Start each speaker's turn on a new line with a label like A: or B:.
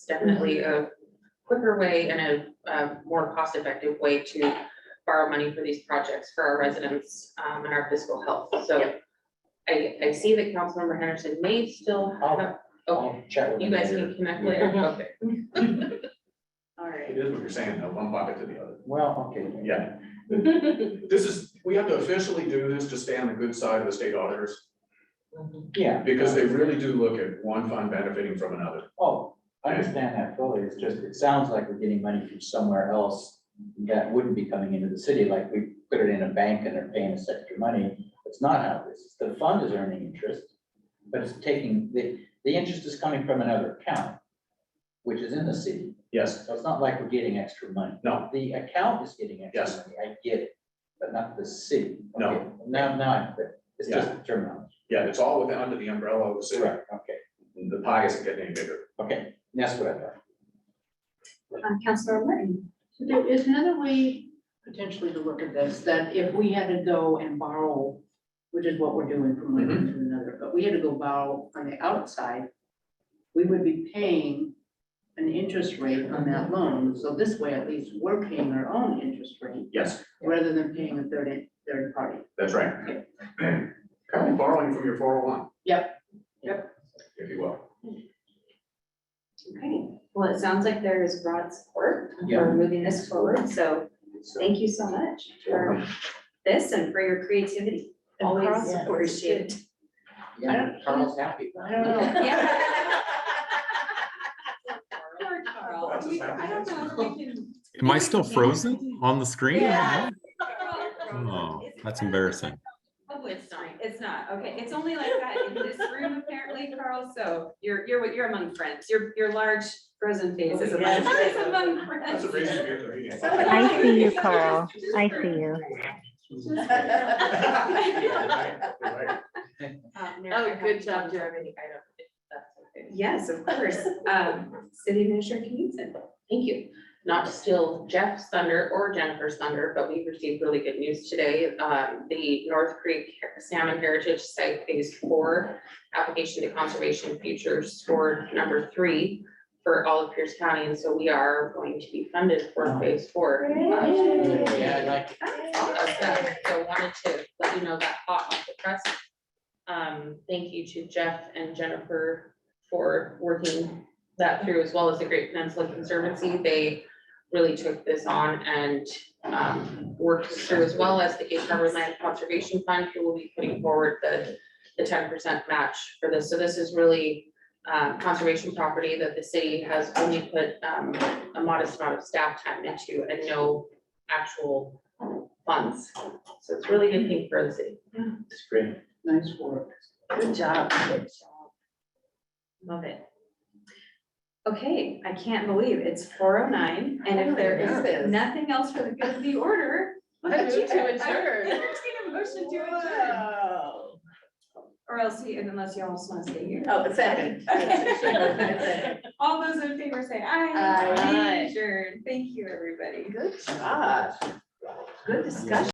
A: It's definitely
B: Mm-hmm.
A: a quicker way and a, uh more cost-effective way to borrow money for these projects for our residents, um, and our fiscal health, so. I, I see that Councilmember Henderson may still have, okay,
C: I'll chat with
A: you
C: him
A: guys
C: later.
A: can connect later, okay.
B: All right.
D: It is what you're saying, though, one bucket to the other.
C: Well, okay.
D: Yeah. This is, we have to officially do this to stay on the good side of the state auditors,
B: Mm-hmm.
C: Yeah.
D: because they really do look at one fund benefiting from another.
C: Oh, I understand that fully. It's just, it sounds like we're getting money from somewhere else that wouldn't be coming into the city, like we put it in a bank and they're paying us extra money. It's not how this is. The fund is earning interest, but it's taking, the, the interest is coming from another account, which is in the city.
D: Yes,
C: So it's not like we're getting extra money.
D: no,
C: The account is getting
D: Yes.
C: extra money. I get it, but not the city.
D: No.
C: Okay, Now, now I'm clear. It's just the terminology.
D: yeah, it's all within, under the umbrella of the city.
C: Correct. Okay,
D: The pie isn't getting any bigger.
C: okay. That's what I thought.
B: Um, Councilor Martin.
E: There is another way potentially to look at this, that if we had to go and borrow, which is what we're doing from one end to another, but we had to go borrow on the outside, we would be paying an interest rate on that loan. So this way, at least we're paying our own interest rate
D: Yes,
E: rather than paying a third, third party.
D: that's right. Kind of borrowing from your four oh one.
E: Yep.
D: Yep. If you will.
B: Okay, well, it sounds like there is broad support
C: Yeah.
B: for moving this forward, so thank you so much for this and for your creativity. Always
E: Carl's-
B: appreciated.
E: I
C: Yeah,
E: don't-
C: Carl's happy.
E: I don't know.
B: Poor Carl.
D: That's a sad
B: I don't know if we
D: answer.
B: can-
F: Am I still frozen on the screen?
B: Yeah.
F: Oh, that's embarrassing.
B: Oh, it's not, it's not, okay, it's only like that in this room apparently, Carl, so you're, you're, you're among friends, your, your large frozen face
F: Oh,
B: is among,
E: Yes.
B: is among
D: That's
B: friends.
D: a reason to be at the meeting.
G: I see you, Carl. I see you.
D: You're right, you're right.
B: Oh, good job, Jeremy.
A: I don't, if that's okay.
B: Yes, of course, um, city administrator Knudsen.
A: Thank you. Not to steal Jeff's thunder or Jennifer's thunder, but we received really good news today. Um, the North Creek Salmon Heritage Site Phase Four application to conservation features scored number three for all of Pierce County, and so we are going to be funded for Phase Four. Uh,
B: Yay.
C: Yeah, I like,
A: Okay, So wanted to let you know that hot off the press. Um, thank you to Jeff and Jennifer for working that through as well as the Great Peninsula Conservancy. They really took this on and um worked through as well as the Cape Harbor Land Conservation Fund, who will be putting forward the the ten percent match for this. So this is really uh, conservation property that the city has only put um a modest amount of staff time into and no actual funds. So it's really a good thing for the city.
C: it's great.
E: Nice work.
B: Good job. Good job. Love it. Okay, I can't believe it's four oh nine, and if there
E: Nervous.
B: is nothing else for the good of the order.
E: I move to
B: I- I
E: adjourn.
B: Entertain a motion to adjourn,
E: Wow.
B: or else, you- unless you all just wanna stay here.
E: Oh, second.
B: Okay. All those in favor say aye.
E: Aye.
B: Adjourn, thank you, everybody.
E: Good job.
B: Good discussion.